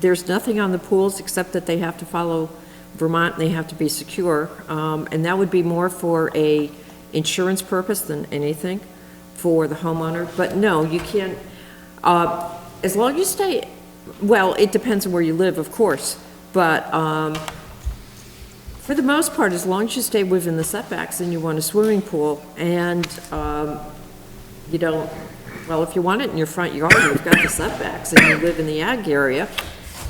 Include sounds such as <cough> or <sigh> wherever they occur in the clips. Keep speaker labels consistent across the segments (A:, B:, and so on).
A: there's nothing on the pools except that they have to follow Vermont, and they have to be secure. Um, And that would be more for a insurance purpose than anything for the homeowner. But no, you can't, uh, as long as you stay, well, it depends on where you live, of course, but um, for the most part, as long as you stay within the setbacks and you want a swimming pool, and um, you don't, well, if you want it in your front yard, you've got the setbacks, and you live in the ag area,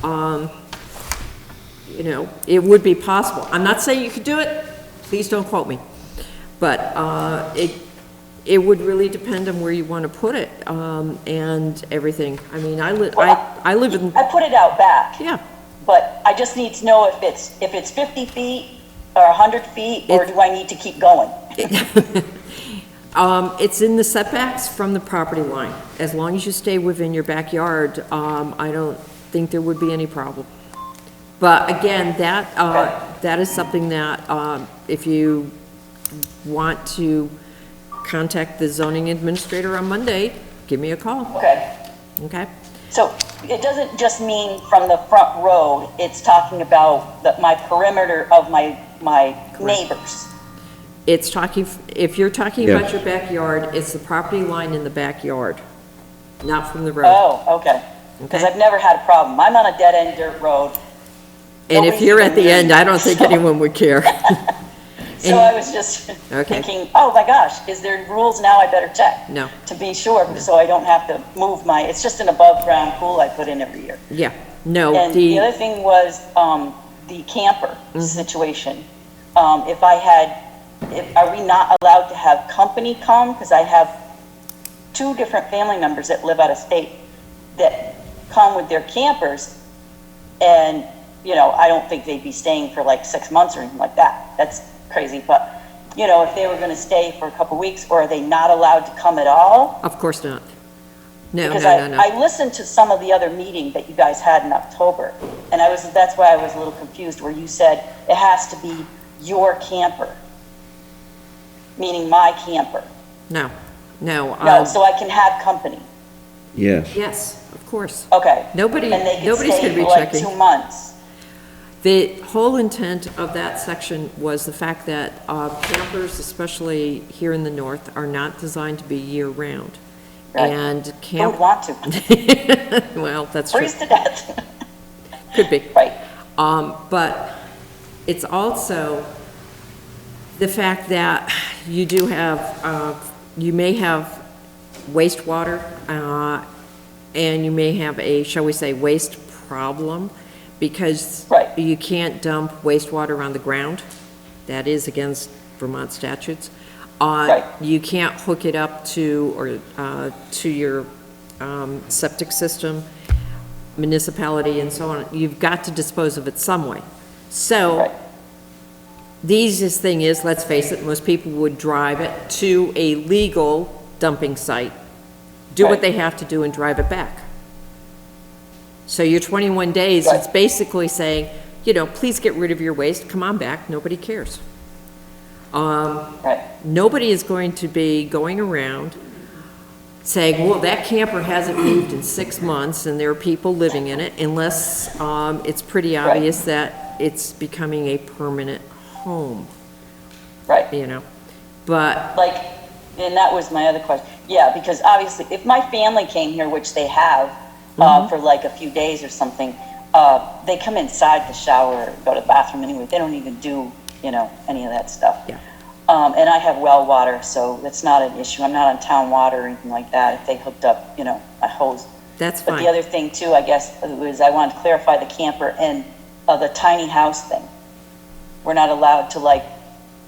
A: um, you know, it would be possible. I'm not saying you could do it, please don't quote me, but uh, it, it would really depend on where you want to put it um, and everything. I mean, I live, I, I live in,
B: I put it out back,
A: yeah,
B: but I just need to know if it's, if it's 50 feet or 100 feet, or do I need to keep going?
A: <laughs> Um, it's in the setbacks from the property line. As long as you stay within your backyard, um, I don't think there would be any problem. But again, that, uh, that is something that, um, if you want to contact the zoning administrator on Monday, give me a call,
B: Okay.
A: okay?
B: So it doesn't just mean from the front road, it's talking about the, my perimeter of my, my neighbors.
A: It's talking, if you're talking about
C: Yes.
A: your backyard, it's the property line in the backyard, not from the road.
B: Oh, okay. Because
A: Okay.
B: I've never had a problem. I'm on a dead-end dirt road,
A: And if you're at the end, I don't think anyone would care.
B: so I was <laughs> just
A: Okay.
B: thinking, oh my gosh, is there rules now? I better check.
A: No.
B: To be sure, so I don't have to move my, it's just an above-ground pool I put in every year.
A: Yeah, no, the.
B: And the other thing was um, the camper situation. Um, If I had, if, are we not allowed to have company come? Because I have two different family members that live out of state that come with their campers. And, you know, I don't think they'd be staying for like six months or anything like that. That's crazy. But, you know, if they were going to stay for a couple weeks, or are they not allowed to come at all?
A: Of course not. No, no,
B: Because
A: no,
B: I,
A: no.
B: I listened to some of the other meeting that you guys had in October, and I was, that's why I was a little confused, where you said it has to be your camper, meaning my camper.
A: No, no.
B: No,
A: um,
B: so I can have company,
C: Yes.
A: Yes, of course.
B: okay.
A: Nobody-
B: And they can
A: nobody's
B: stay
A: gonna be
B: for like
A: checking.
B: two months.
A: The whole intent of that section was the fact that uh, campers, especially here in the north, are not designed to be year-round.
B: Right.
A: And
B: Who would
A: camp, <laughs>
B: want to?
A: well, that's true,
B: Freeze to death,
A: could be.
B: right?
A: Um, but it's also the fact that you do have, uh, you may have wastewater, uh, and you may have a, shall we say, waste problem, because
B: Right.
A: you can't dump wastewater on the ground. That is against Vermont statutes. Uh,
B: Right.
A: You can't hook it up to, or, uh, to your, um, septic system, municipality and so on. You've got to dispose of it some way. So
B: Right.
A: the easiest thing is, let's face it, most people would drive it to a legal dumping site, do what
B: Right.
A: they have to do and drive it back. So your 21 days, it's
B: Right.
A: basically saying, you know, please get rid of your waste, come on back, nobody cares. Um,
B: Right.
A: Nobody is going to be going around saying, well, that camper hasn't moved in six months and there are people living in it, unless um, it's pretty
B: Right.
A: obvious that it's becoming a permanent home,
B: Right.
A: you know? But,
B: like, and that was my other question. Yeah, because obviously, if my family came here, which they have, uh, for like a few days or something, uh, they come inside to shower, go to the bathroom anyway. They don't even do, you know, any of that stuff.
A: Yeah.
B: Um, and I have well water, so that's not an issue. I'm not on town water or anything like that. If they hooked up, you know, a hose.
A: That's
B: But
A: fine.
B: the other thing too, I guess, was I wanted to clarify the camper and, uh, the tiny house thing. We're not allowed to like,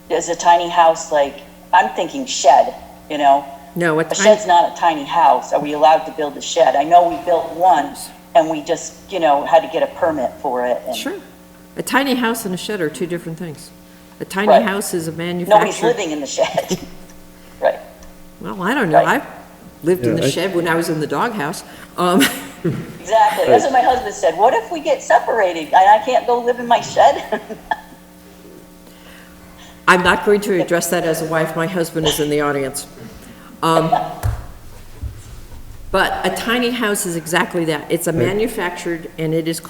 B: is a tiny house like, I'm thinking shed, you know?
A: no, at
B: A
A: times,
B: shed's not a tiny house. Are we allowed to build a shed? I know we built one and we just, you know, had to get a permit for it and
A: sure. A tiny house and a shed are two different things. A tiny
B: Right.
A: house is a manufactured.
B: nobody's living in the shed. Right,
A: Well, I don't know. I
B: Right.
A: lived in
C: Yeah,
A: the
C: I-
A: shed when I was in the doghouse. Um, <laughs>
B: exactly. That's what my husband said. What if we get separated and I can't go live in my shed?
A: I'm not going to address that as a wife. My husband is in the audience. Um, But a tiny house is exactly that. It's a manufactured and it is